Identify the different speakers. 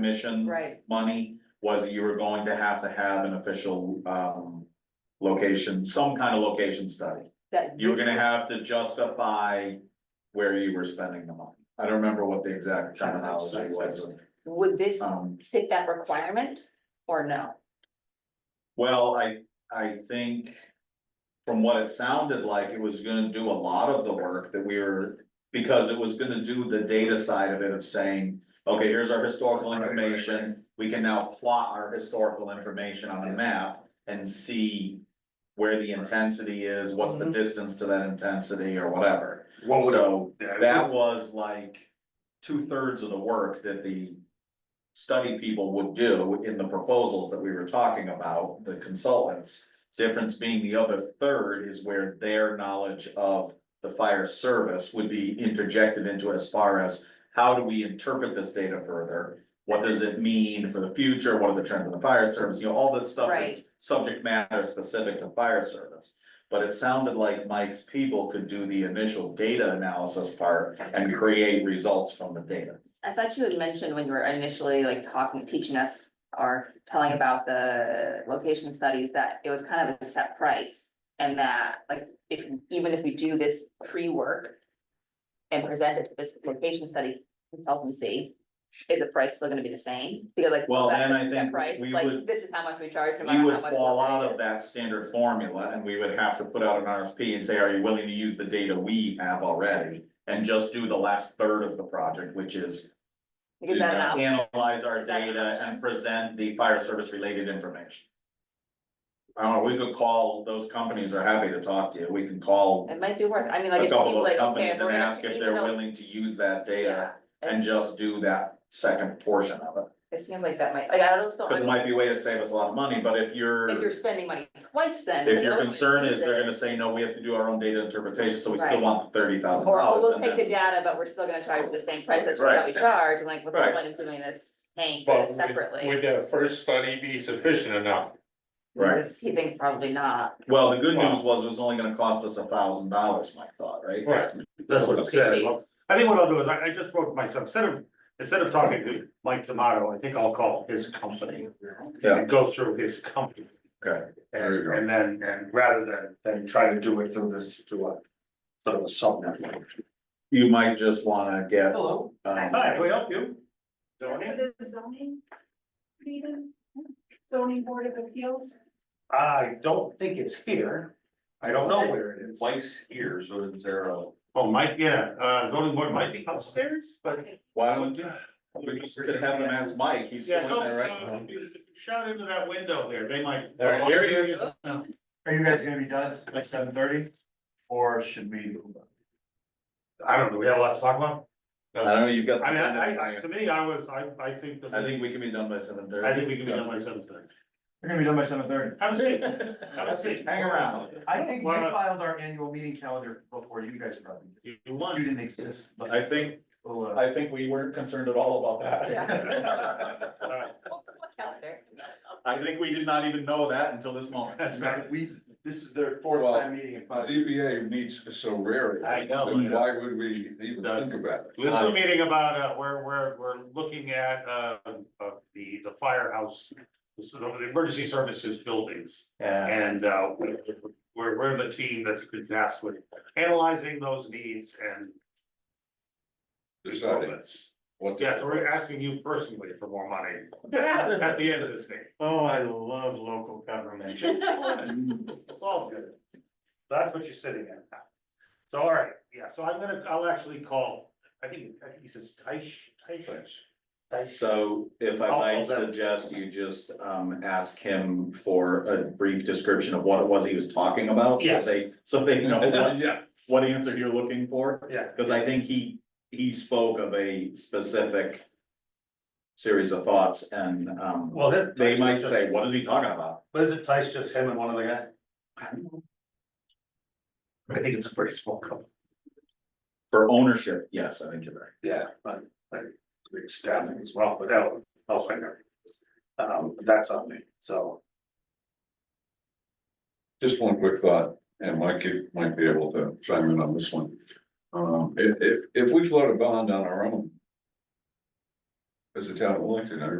Speaker 1: commission
Speaker 2: Right,
Speaker 1: money was that you were going to have to have an official um location, some kind of location study.
Speaker 2: that.
Speaker 1: You were
Speaker 2: this-
Speaker 1: gonna have to justify where you were spending the money. I don't remember what the exact terminology was.
Speaker 2: Would this
Speaker 1: Um,
Speaker 2: fit that requirement or no?
Speaker 1: well, I, I think from what it sounded like, it was gonna do a lot of the work that we were, because it was gonna do the data side of it of saying, okay, here's our historical
Speaker 3: Right, right, right.
Speaker 1: information, we can now plot our historical information on a map and see where the intensity is, what's the distance to that intensity or whatever.
Speaker 3: Mm-hmm. What would,
Speaker 1: So
Speaker 3: yeah,
Speaker 1: that was like two thirds of the work that the study people would do in the proposals that we were talking about, the consultants. Difference being the other third is where their knowledge of the fire service would be interjected into as far as how do we interpret this data further? What does it mean for the future? What are the trends in the fire service? You know, all that stuff
Speaker 2: Right.
Speaker 1: that's subject matter specific to fire service. But it sounded like Mike's people could do the initial data analysis part and create results from the data.
Speaker 2: I thought you had mentioned when you were initially like talking, teaching us or telling about the location studies that it was kind of a set price. And that like, if, even if we do this pre-work and present it to this location study consultancy, is the price still gonna be the same? Because like.
Speaker 1: Well,
Speaker 2: that's
Speaker 1: then
Speaker 2: a
Speaker 1: I
Speaker 2: set
Speaker 1: think
Speaker 2: price,
Speaker 1: we
Speaker 2: like,
Speaker 1: would-
Speaker 2: This is how much we charge. no
Speaker 1: We
Speaker 2: matter how
Speaker 1: would
Speaker 2: much
Speaker 1: fall
Speaker 2: work it
Speaker 1: out
Speaker 2: is.
Speaker 1: of that standard formula and we would have to put out an RFP and say, are you willing to use the data we have already? And just do the last third of the project, which is
Speaker 2: Is that an
Speaker 1: to
Speaker 2: option?
Speaker 1: Analyze our
Speaker 2: Is that an
Speaker 1: data
Speaker 2: option?
Speaker 1: and present the fire service related information. I don't know, we could call, those companies are happy to talk to you, we can call
Speaker 2: It might be worth, I mean, like,
Speaker 1: a
Speaker 2: it
Speaker 1: couple
Speaker 2: seems
Speaker 1: of those
Speaker 2: like, okay,
Speaker 1: companies
Speaker 2: if
Speaker 1: and
Speaker 2: we're gonna,
Speaker 1: ask if
Speaker 2: even
Speaker 1: they're
Speaker 2: though,
Speaker 1: willing to use that
Speaker 2: yeah,
Speaker 1: data. And just do that second portion of it,
Speaker 2: it seems like that might, like, I don't still,
Speaker 1: cause
Speaker 2: I
Speaker 1: it
Speaker 2: mean,
Speaker 1: might be a way to save us a lot of money, but if you're,
Speaker 2: if you're spending money twice then.
Speaker 1: if
Speaker 2: then
Speaker 1: your
Speaker 2: no one
Speaker 1: concern is
Speaker 2: sees
Speaker 1: they're
Speaker 2: it.
Speaker 1: gonna say, no, we have to do our own data interpretation, so we still
Speaker 2: Right.
Speaker 1: want the thirty thousand
Speaker 2: Or,
Speaker 1: dollars.
Speaker 2: oh, we'll take the data, but we're still gonna charge the same price as
Speaker 1: Right.
Speaker 2: what we charge, and like, what's the
Speaker 1: Right.
Speaker 2: point of doing this, paying for
Speaker 4: But would-
Speaker 2: this separately?
Speaker 4: Would the first study be sufficient enough?
Speaker 1: Right.
Speaker 2: Because He thinks probably not.
Speaker 1: Well, the good
Speaker 4: Wow.
Speaker 1: news was it was only gonna cost us a thousand dollars, Mike thought, right?
Speaker 4: Right.
Speaker 3: That's what I said,
Speaker 2: Okay.
Speaker 3: Well, I think what I'll do is, I, I just wrote myself, instead of, instead of talking to Mike D'Amato, I think I'll call his company.
Speaker 1: Yeah.
Speaker 3: And go through his company.
Speaker 1: Okay, There you
Speaker 3: And,
Speaker 1: go.
Speaker 3: and then, and rather than, than try to do it through this, through a, sort of a sub network.
Speaker 1: you might just wanna get.
Speaker 3: Hello.
Speaker 1: um,
Speaker 3: Hi, can we help you? Zoning?
Speaker 5: For the zoning, meeting, zoning board of appeals,
Speaker 3: I don't think it's here. I don't know where it is.
Speaker 6: Mike's here, so is there a?
Speaker 3: Oh, Mike, yeah, uh, zoning board might be upstairs, but.
Speaker 1: Why don't we just could have him ask Mike, he's still
Speaker 3: Yeah,
Speaker 1: in
Speaker 3: go,
Speaker 1: there right
Speaker 3: uh,
Speaker 1: now.
Speaker 3: shout into that window there, they might.
Speaker 6: There,
Speaker 1: Here he is.
Speaker 6: Are you guys gonna be done by seven thirty? Or should we?
Speaker 3: I don't know, we have a lot to talk about.
Speaker 1: I don't know, you've got. the
Speaker 3: I mean,
Speaker 1: thing that's
Speaker 3: I, I,
Speaker 1: higher.
Speaker 3: to me, I was, I, I think. that
Speaker 1: I think we can be done by seven thirty.
Speaker 3: I think we can be done by seven thirty.
Speaker 6: We're gonna be done by seven thirty.
Speaker 3: Have a seat, have a seat.
Speaker 1: Hang around.
Speaker 6: I think we
Speaker 3: Well,
Speaker 6: filed our annual meeting calendar before you guys probably. did.
Speaker 3: You
Speaker 6: You
Speaker 3: won.
Speaker 6: didn't exist, but.
Speaker 1: I think,
Speaker 6: We'll, uh,
Speaker 1: I think we weren't concerned at all about that.
Speaker 2: Yeah.
Speaker 3: All right.
Speaker 1: I think we did not even know that until this moment.
Speaker 3: That's right.
Speaker 6: We, this is their fourth
Speaker 7: Well,
Speaker 6: time meeting in five.
Speaker 7: ZBA meets so rarely.
Speaker 3: I know.
Speaker 7: Then why would we even
Speaker 3: Doug.
Speaker 7: think about it?
Speaker 3: This is a meeting about, uh, we're, we're, we're looking at, uh, uh, the, the firehouse, the sort of the emergency services buildings.
Speaker 6: Yeah.
Speaker 3: And, uh, we're, we're the team that's been tasked with analyzing those needs and.
Speaker 7: Deciding
Speaker 3: improvements.
Speaker 7: what. to-
Speaker 3: Yeah, so we're asking you personally for more money at the end of this meeting.
Speaker 6: Oh, I love local government.
Speaker 3: It's all good. That's what you're sitting at now. So, all right, yeah, so I'm gonna, I'll actually call, I think, I think he says Taish, Taish. Taish.
Speaker 1: So if I
Speaker 3: I'll-
Speaker 1: might
Speaker 3: I'll bet.
Speaker 1: suggest you just um ask him for a brief description of what it was he was talking about. so
Speaker 3: Yes.
Speaker 1: they- So they know what,
Speaker 7: Oh, Yeah,
Speaker 1: what answer you're looking for,
Speaker 3: Yeah,
Speaker 1: because I think he, he spoke of a specific series of thoughts and um.
Speaker 3: well, then.
Speaker 1: They might say, what is he talking about?
Speaker 3: What is it, Taish, just him and one other guy? I think it's a pretty small company.
Speaker 1: For ownership, yes, I think you're right.
Speaker 3: Yeah, but, like, big staffing as well, but that, I'll find out. Um, that's on me, so.
Speaker 7: just one quick thought, and Mike you might be able to chime in on this one. Um, if, if, if we float a bond on our own. as a town elected, I